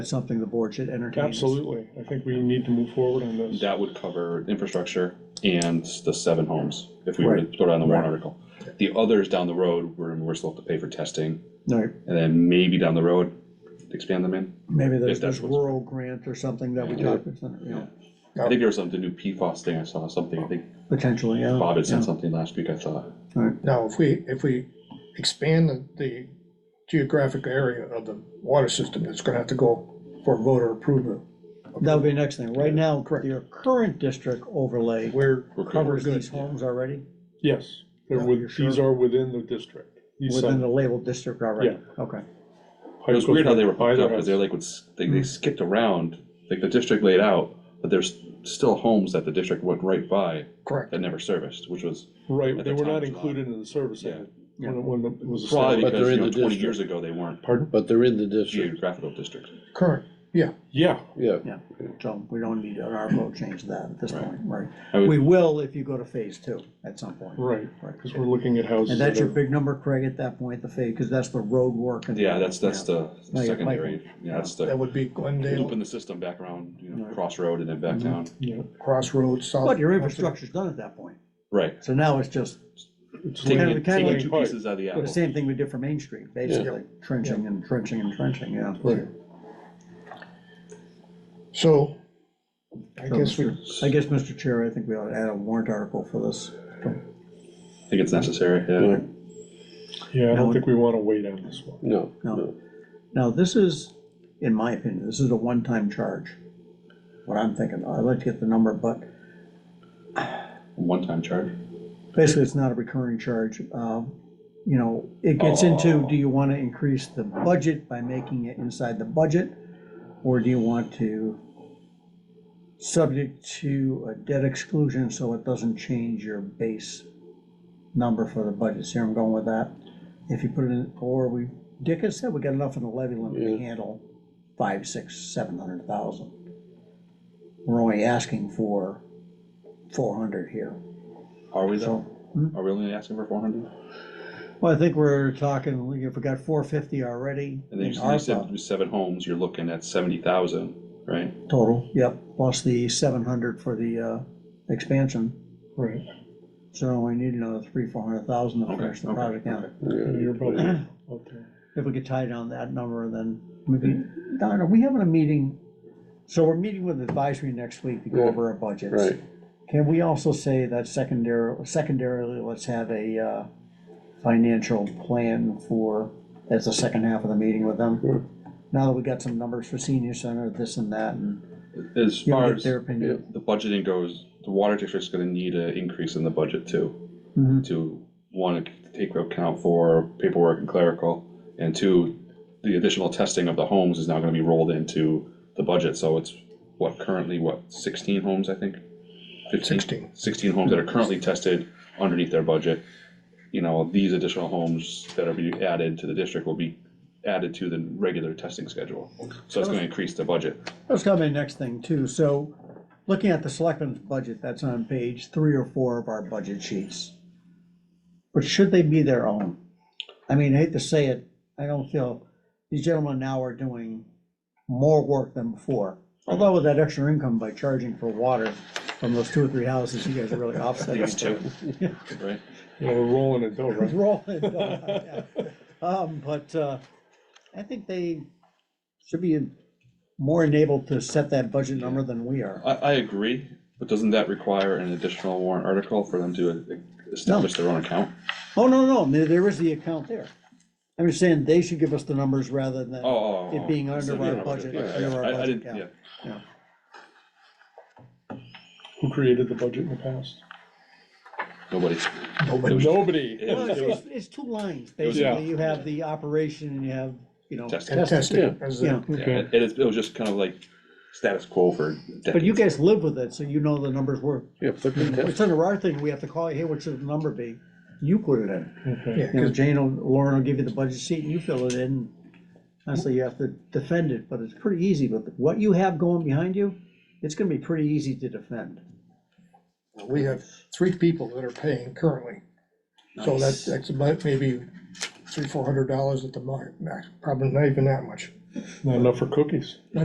It's something the board should entertain. Absolutely, I think we need to move forward on this. That would cover infrastructure and the seven homes, if we were to Right. throw down the warrant Right. article. The others down the road, we're, we're still have to pay for testing, All right, and then maybe down the road, expand them in. maybe Yes, there's that's this what's- rural grant or something that we Yeah. talked about, you know, I think there was something, the new PFOS thing, I saw something, I think potentially, yeah. Bob had yeah. sent something last week, I thought. All right, Now, if we, if we expand the- the geographic area of the water system, it's gonna have to go for voter approval. that would be the next thing. Right now, your current district overlay We're, We're good. covers good, these yeah. homes already, Yes, they're Yeah, with- you're sure? these are within the district. These within sub- the labeled district already, okay. It was weird how they were hooked Either up, because they're has- like, was- they, Hmm. they skipped around, like the district laid out, but there's still homes that the district went right by correct, that never serviced, which was Right, at they the were time not was allowed. included in the service Yeah. area. Yeah. When, it- when it was probably established. But because, they're you in know, the twenty district. years ago, they weren't Pardon? But they're in the district, geographical district. current, yeah. Yeah, yeah. Yeah, so we don't need an ARPO change to that at this point, right? I would- We will if you go to phase two at some point. right, Right. because we're looking at houses. And that that's your are- big number, Craig, at that point, the phase, because that's the road work. and- Yeah, that's, that's the No, you're secondary, Michael. yeah, that's That the, would be looping Glendale, the system back around, you know, Right. crossroad and then back Mm-hmm. down, Yeah, Crossroads, South. But your infrastructure's done at that point, right. so now it's just it's Taking, Kind of- like- it- taking like- two Right. pieces out of the the apple. same thing we did for Main Street, basically, trenching and trenching and trenching, yeah. Right. So, I guess we, I guess, Mr. Chair, I think we ought to add a warrant article for this. I think it's necessary, yeah. yeah, I Now- don't think we want to wait on this one. No, No. no, Now, this is, in my opinion, this is a one-time charge, what I'm thinking. I'd like to get the number, but One-time charge. basically, it's not a recurring charge. Um, You know, it gets into, do you want to increase the budget by making it inside the budget? Or do you want to, subject to a debt exclusion, so it doesn't change your base number for the budget? See where I'm going with that? If you put it in, or we, Dick has said we got enough in the levy limit to Yeah. handle five, six, seven hundred thousand. We're only asking for four hundred here, Are we so. though? Are we only asking for four hundred? Well, I think we're talking, we- if we got four fifty already And then in you said- you said ARPA with seven homes, you're looking at seventy thousand, right? total, yep, plus the seven hundred for the, uh, expansion. Right, So we need another three, four hundred thousand to Okay, finish the okay, project out. yeah. you're probably out there. If we could tie down that number, then maybe, Don, are we having a meeting? So we're meeting with advisory next week to go Yeah, over our budgets. right. Can we also say that secondary, secondarily, let's have a, uh, financial plan for, that's the second half of the meeting with them? Now that we got some numbers for senior center, this and that, and As you far know, get as their the opinion. budgeting goes, the water district's gonna need an increase in the budget too. Mhm. to, one, take account for paperwork and clerical, and two, the additional testing of the homes is now gonna be rolled into the budget, so it's, what, currently, what, sixteen homes, I think? 15? Sixteen. Sixteen homes that are currently tested underneath their budget. You know, these additional homes that are being added to the district will be added to the regular testing schedule, so it's gonna increase the budget. Let's come in next thing too, so, looking at the selectmen's budget, that's on page three or four of our budget sheets. But should they be their own? I mean, I hate to say it, I don't feel, these gentlemen now are doing more work than before. Although with that extra income by charging for water from those two or three houses, you guys are really offsetting. These each two, other. right? You know, we're rolling it though, It's right? rolling, uh, yeah. Um, but, uh, I think they should be more enabled to set that budget number than we are. I, I agree, but doesn't that require an additional warrant article for them to e-, establish their own account? Oh, no, no, there, there is the account there. I'm just saying they should give us the numbers rather than, Oh, oh, It being oh, under yeah, our yeah, budget, yeah, under our I- I budget, didn't- yeah. yeah. Who created the budget in the past? Nobody, But was- nobody. it Well, was- it's, it was it's, it's two lines, was- basically. You have the operation and you have, you know, testing. and testing, as the- Yeah. Yeah, It it is, it was just kind of like status quo for but you decades. guys live with it, so you know the numbers work. Yeah, flip the test. It's under our thing, we have to call, you, hey, what should the number be? You put it in. Okay. yeah, You know, 'cause Jane will, Lauren will give you the budget sheet and you fill it in. Honestly, you have to defend it, but it's pretty easy, but what you have going behind you, it's gonna be pretty easy to defend. we have three people that are paying currently. So Nice. that's, that's about maybe three, four hundred dollars at the mark, max, probably not even that much. Not enough for cookies.